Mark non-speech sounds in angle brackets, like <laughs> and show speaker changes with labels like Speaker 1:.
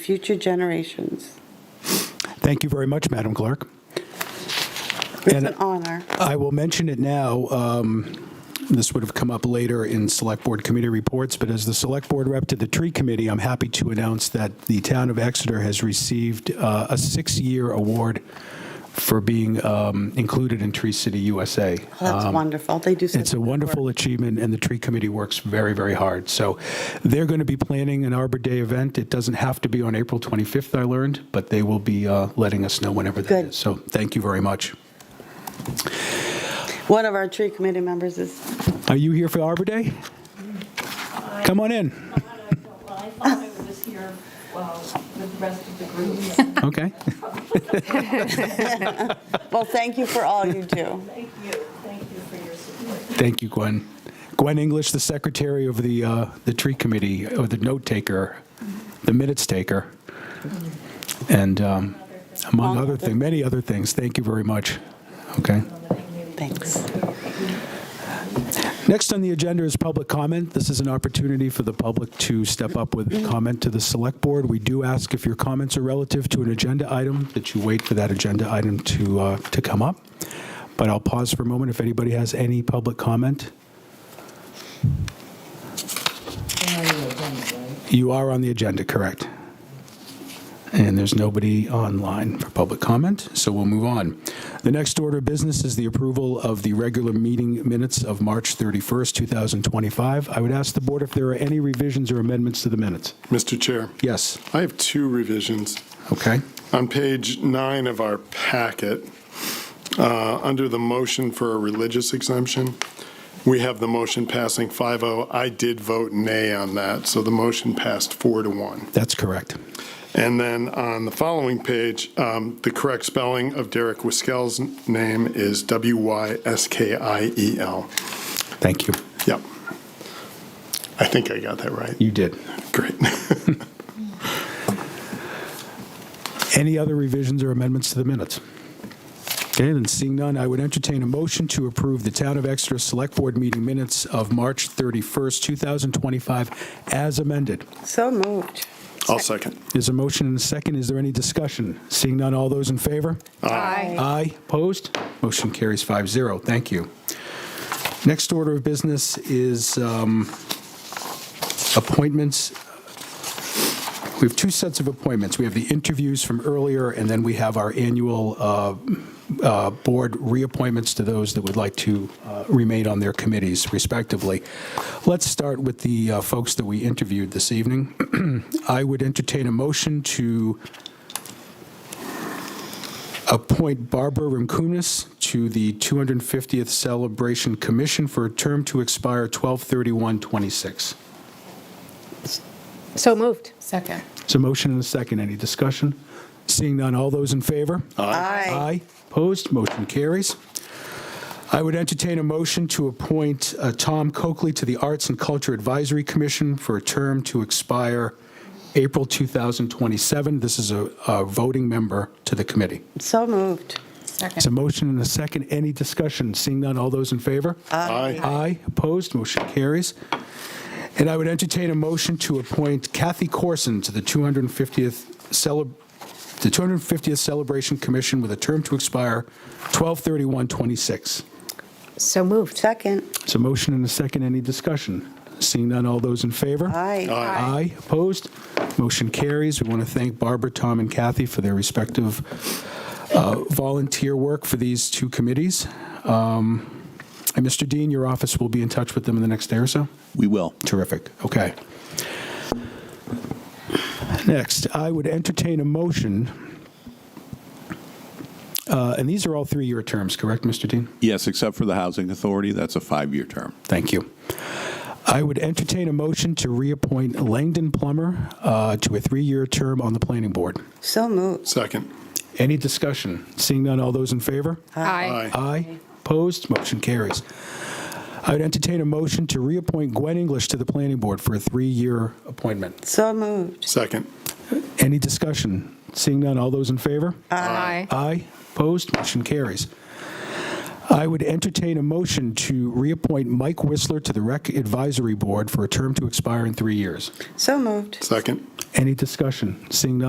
Speaker 1: future generations.
Speaker 2: Thank you very much, Madam Clerk.
Speaker 1: It's
Speaker 2: And-
Speaker 1: an honor. Oh,
Speaker 2: I will mention it now. um, This would have come up later in Select Board Committee reports, but as the Select Board Rep to the Tree Committee, I'm happy to announce that the town of Exeter has received uh, a six-year award for being um, included in Tree City USA.
Speaker 1: That's wonderful. They do such
Speaker 2: Um, It's a
Speaker 1: good work.
Speaker 2: wonderful achievement, and the tree committee works very, very hard. So they're going to be planning an Arbor Day event. It doesn't have to be on April 25th, I learned, but they will be uh, letting us know whenever that
Speaker 1: Good.
Speaker 2: is. So thank you very much.
Speaker 1: One of our tree committee members is,
Speaker 2: Are you here for Arbor Day? Come on in.
Speaker 3: I thought- Well, I thought I was here, well, with the rest of the group. but
Speaker 2: Okay. <laughs>
Speaker 1: well, thank you for all
Speaker 4: <laughs>
Speaker 1: you do.
Speaker 3: Thank you, thank you for your support.
Speaker 2: Thank you, Gwen. Gwen English, the secretary of the, uh, the tree committee, or the note taker, the minutes taker, and um, among other things, many other things. Thank you very much. Okay.
Speaker 1: Thanks.
Speaker 2: Next on the agenda is public comment. This is an opportunity for the public to step up with comment to the Select Board. We do ask if your comments are relative to an agenda item, that you wait for that agenda item to, uh, to come up. But I'll pause for a moment if anybody has any public comment. You are on the agenda, correct? And there's nobody online for public comment, so we'll move on. The next order of business is the approval of the regular meeting minutes of March 31st, 2025. I would ask the board if there are any revisions or amendments to the minutes.
Speaker 5: Mr. Chair,
Speaker 2: Yes,
Speaker 5: I have two revisions.
Speaker 2: okay.
Speaker 5: On page nine of our packet, uh, under the motion for a religious exemption, we have the motion passing 5-0. I did vote nay on that, so the motion passed 4 to 1.
Speaker 2: That's correct.
Speaker 5: And then on the following page, um, the correct spelling of Derek Wiskell's name is W-Y-S-K-I-E-L.
Speaker 2: Thank you.
Speaker 5: E Yep. I think I got that right.
Speaker 2: You did.
Speaker 5: Great.
Speaker 2: Any other revisions or amendments to the minutes? Okay, then seeing none, I would entertain a motion to approve the Town of Exeter Select Board meeting minutes of March 31st, 2025, as amended.
Speaker 1: So moved.
Speaker 5: <laughs> I'll second.
Speaker 2: There's a motion and a second. Is there any discussion? Seeing none, all those in favor?
Speaker 1: Aye.
Speaker 2: Aye. Opposed? Motion carries 5-0. Thank you. Next order of business is um, appointments. We have two sets of appointments. We have the interviews from earlier, and then we have our annual uh, uh, board reappointments to those that would like to uh, remain on their committees respectively. Let's start with the uh, folks that we interviewed this evening. <clears throat> I would entertain a motion to appoint Barbara Rimkunis to the 250th Celebration Commission for a term to expire 12/31/26.
Speaker 4: So moved. Second.
Speaker 2: It's a motion and a second. Any discussion? Seeing none, all those in favor?
Speaker 1: Aye.
Speaker 2: Aye. Opposed? Motion carries. I would entertain a motion to appoint uh, Tom Coakley to the Arts and Culture Advisory Commission for a term to expire April 2027. This is a a voting member to the committee.
Speaker 1: So moved.
Speaker 2: It's a motion and a second. Any discussion? Seeing none, all those in favor?
Speaker 5: Aye.
Speaker 2: Aye. Opposed? Motion carries. And I would entertain a motion to appoint Kathy Corson to the 250th Celeb, the 250th Celebration Commission with a term to expire 12/31/26.
Speaker 4: So moved.
Speaker 1: Second.
Speaker 2: It's a motion and a second. Any discussion? Seeing none, all those in favor?
Speaker 1: Aye.
Speaker 2: Aye. Opposed? Motion carries. We want to thank Barbara, Tom, and Kathy for their respective uh, volunteer work for these two committees. Um, And Mr. Dean, your office will be in touch with them in the next day or so?
Speaker 6: We will.
Speaker 2: Terrific. Okay. Next, I would entertain a motion, uh, and these are all three-year terms, correct, Mr. Dean?
Speaker 6: Yes, except for the Housing Authority, that's a five-year term.
Speaker 2: Thank you. I would entertain a motion to reappoint Langdon Plummer uh, to a three-year term on the planning board.
Speaker 1: So moved.
Speaker 5: Second.
Speaker 2: Any discussion? Seeing none, all those in favor?
Speaker 5: Aye.
Speaker 2: Aye. Opposed? Motion carries. I would entertain a motion to reappoint Gwen English to the planning board for a three-year appointment.
Speaker 1: So moved.
Speaker 5: Second.
Speaker 2: Any discussion? Seeing none, all those in favor? Aye. Opposed? Motion carries. I would entertain a motion to reappoint Mike Whistler to the Rec Advisory Board for a term to expire in three years.
Speaker 1: So moved.
Speaker 5: Second.
Speaker 2: Any discussion? Seeing none,